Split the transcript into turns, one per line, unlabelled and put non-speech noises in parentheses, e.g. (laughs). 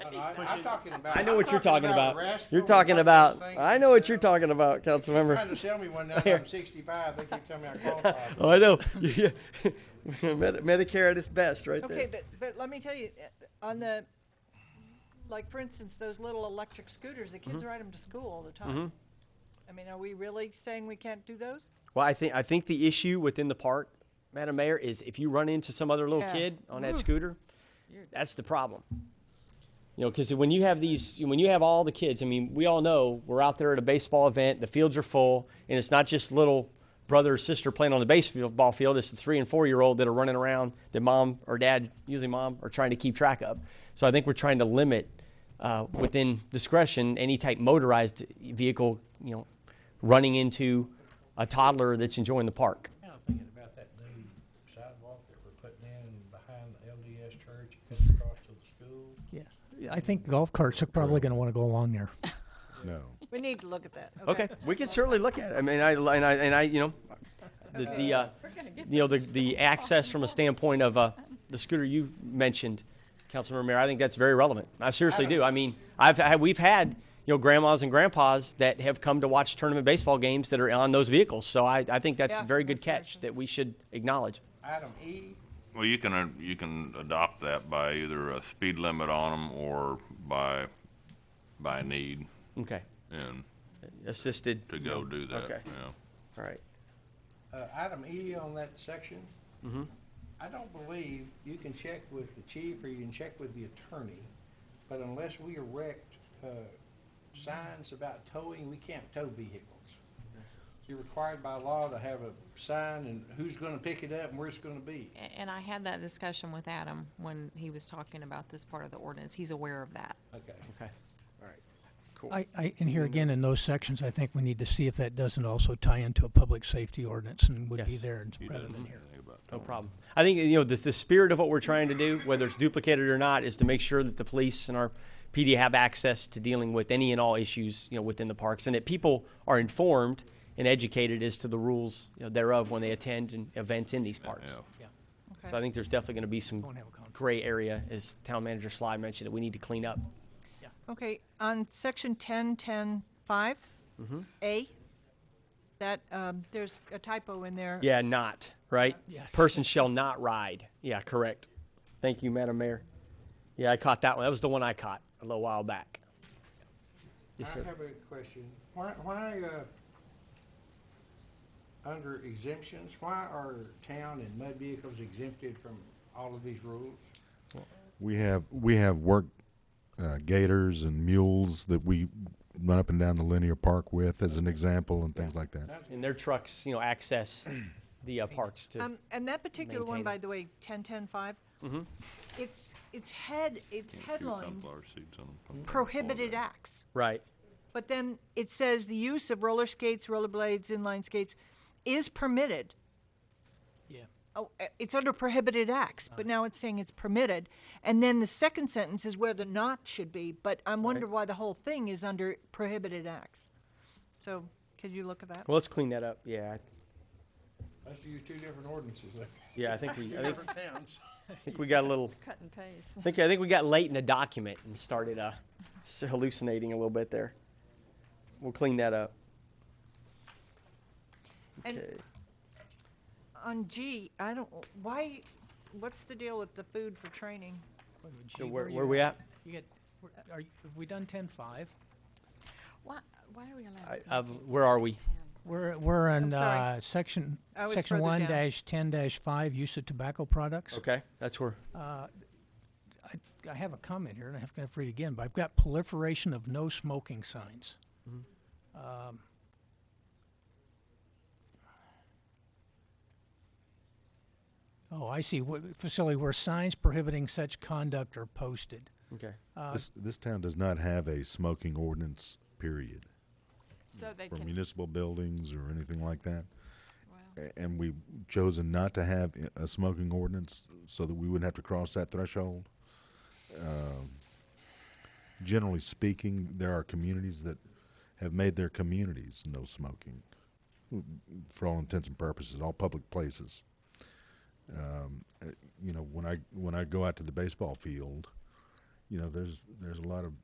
no, I, I'm talking about.
I know
I'm
what you're talking about.
rascal
You're
and
talking
all those
about.
things
I know what you're
that, uh,
talking about,
Trying
Councilmember.
to sell me
(laughs)
one now. that I'm 65. They keep telling me I qualify.
Oh, I know. (laughs) Yeah. Medi- Medicare at its best, right there.
Okay, but, but let me tell you, uh, on the, like, for instance, those little electric scooters, the
Mm-hmm.
kids ride them to school all the time. I mean, are we really saying we can't do those?
Well, I think I think the issue within the park, Madam Mayor, is if you run into some other little
Yeah.
kid on that scooter, that's the problem. You know, because when you have these, when you have all the kids, I mean, we all know we're out there at a baseball event, the fields are full, and it's not just little brother or sister playing on the baseball field. It's the three and four year old that are running around that mom or dad, usually mom, are trying to keep track of. So I think we're trying to limit, uh, within discretion, any type motorized vehicle, you know, running into a toddler that's enjoying the park.
Kind of thinking about that new sidewalk that we're putting in behind the LDS church, it cuts across to the school.
Yeah, I think golf carts are probably going to want to go along there.
No.
We need to look at that,
Okay, we can certainly look at it. I mean, I, and I, and I, you know, the, the, uh, you know, the, the access from a standpoint of, uh, the scooter you mentioned, Councilmember Mayor, I think that's very relevant. I seriously do. I mean, I've, had we've had, you know, grandmas and grandpas that have come to watch tournament baseball games that are on those vehicles. So I, I think that's a
Yeah,
very good
that's very
catch that we should acknowledge.
Item E.
Well, you can, uh, you can adopt that by either a speed limit on them or by, by need
Okay,
and
assisted,
to go do that,
Okay.
yeah.
all right.
Uh, item E on that section. I don't believe you can check with the chief or you can check with the attorney, but unless we erect, uh, signs about towing, we can't tow vehicles. You're required by law to have a sign and who's gonna pick it up and where it's gonna be.
A- And I had that discussion with Adam when he was talking about this part of the ordinance. He's aware of that.
Okay.
Okay.
All right. Cool.
I, I, and here again, in those sections, I think we need to see if that doesn't also tie into a public safety ordinance and would be
Yes.
there rather
doesn't
than here.
Think about that.
No problem. I think, you know, the, the spirit of what we're trying to do, whether it's duplicated or not, is to make sure that the police and our PD have access to dealing with any and all issues, you know, within the parks and that people are informed and educated as to the rules you know, thereof when they attend an event in these parks.
Yeah.
So I think there's definitely going to be some
Don't have a conflict.
gray area, as Town Manager Sly mentioned, that we need to clean up.
Okay, on section ten, ten, five,
Mm-hmm.
A, that, um, there's a typo in there.
Yeah, not, right?
Yes.
Person shall not ride. Yeah, correct. Thank you, Madam Mayor. Yeah, I caught that one. That was the one I caught a little while back. Yes, sir.
I have a question. Why, why, uh, under exemptions, why are town and mud vehicles exempted from all of these rules?
We have we have work uh, gators and mules that we run up and down the linear park with as an example and things like that.
and their trucks, you know, access the uh, parks to.
Um, and that particular one,
maintain
by
it.
the way, ten, ten, five,
Mm-hmm.
it's, it's head, it's
Shoot
headlined
sunflower seeds on 'em, put 'em in the
prohibited
foreground.
acts.
right.
But then it says the use of roller skates, rollerblades, inline skates is permitted.
Mm-hmm.
Yeah.
Oh, uh, it's under prohibited acts, but now it's saying it's permitted. And then the second sentence is where the not should be, but I'm wondering why the whole thing is under prohibited acts. So could you look at that?
Well, let's clean that up. Yeah. I-
Let's use two different ordinances, like,
Yeah, I think we, I think,
different towns.
I think we got a little,
Cut and paste.
I think, I think we got late in the document and started uh, s- hallucinating a little bit there. We'll clean that up.
And
Okay.
on G, I don't, why, what's the deal with the food for training?
So where, where we at?
You get, where- are, you- have we done ten five?
Why, why are we allowed?
I,
smoking?
I've, where are we?
We're, we're on,
sorry.
uh, section,
I was
section
further
one
down.
dash ten dash five, use of tobacco products.
Okay, that's where.
I have a comment here, and I have to read it again, but I've got proliferation of no smoking signs. Um, Oh, I see, Wh- facility where signs prohibiting such conduct are posted.
Okay.
Uh,
This this town does not have a smoking ordinance period
So they
for
can,
municipal buildings or anything like that.
Wow.
A- And we've chosen not to have i- a smoking ordinance so that we wouldn't have to cross that threshold. Um, Generally speaking, there are communities that have made their communities no smoking, w- for all intents and purposes, all public places. Um, uh, You know, when I, when I go out to the baseball field, you know, there's, there's a lot of